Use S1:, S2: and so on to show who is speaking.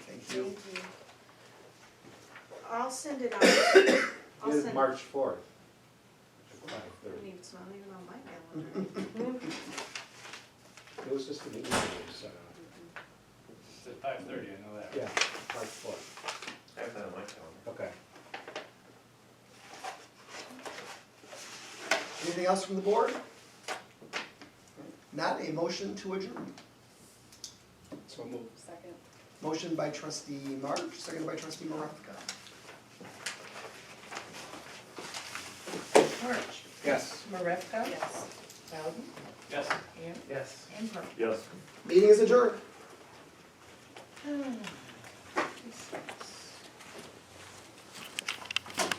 S1: you.
S2: Thank you. I'll send it out. I'll
S1: It is
S2: send it.
S1: March fourth.
S2: I mean, It's not even on my calendar.
S1: It was just an email we sent out.
S3: It's at five thirty, I know that.
S1: Yeah, March fourth,
S4: I have that on my calendar.
S1: okay.
S5: Anything else from the board? Not a motion to adjourn.
S1: So move.
S6: Second.
S5: Motion by trustee March, seconded by trustee Maravka.
S7: March,
S1: Yes.
S7: Marevka?
S6: Yes.
S7: Bowden?
S3: Yes.
S7: And?
S4: Yes.
S7: And Park.
S4: Yes.
S5: Meeting is adjourned.
S7: Hmm.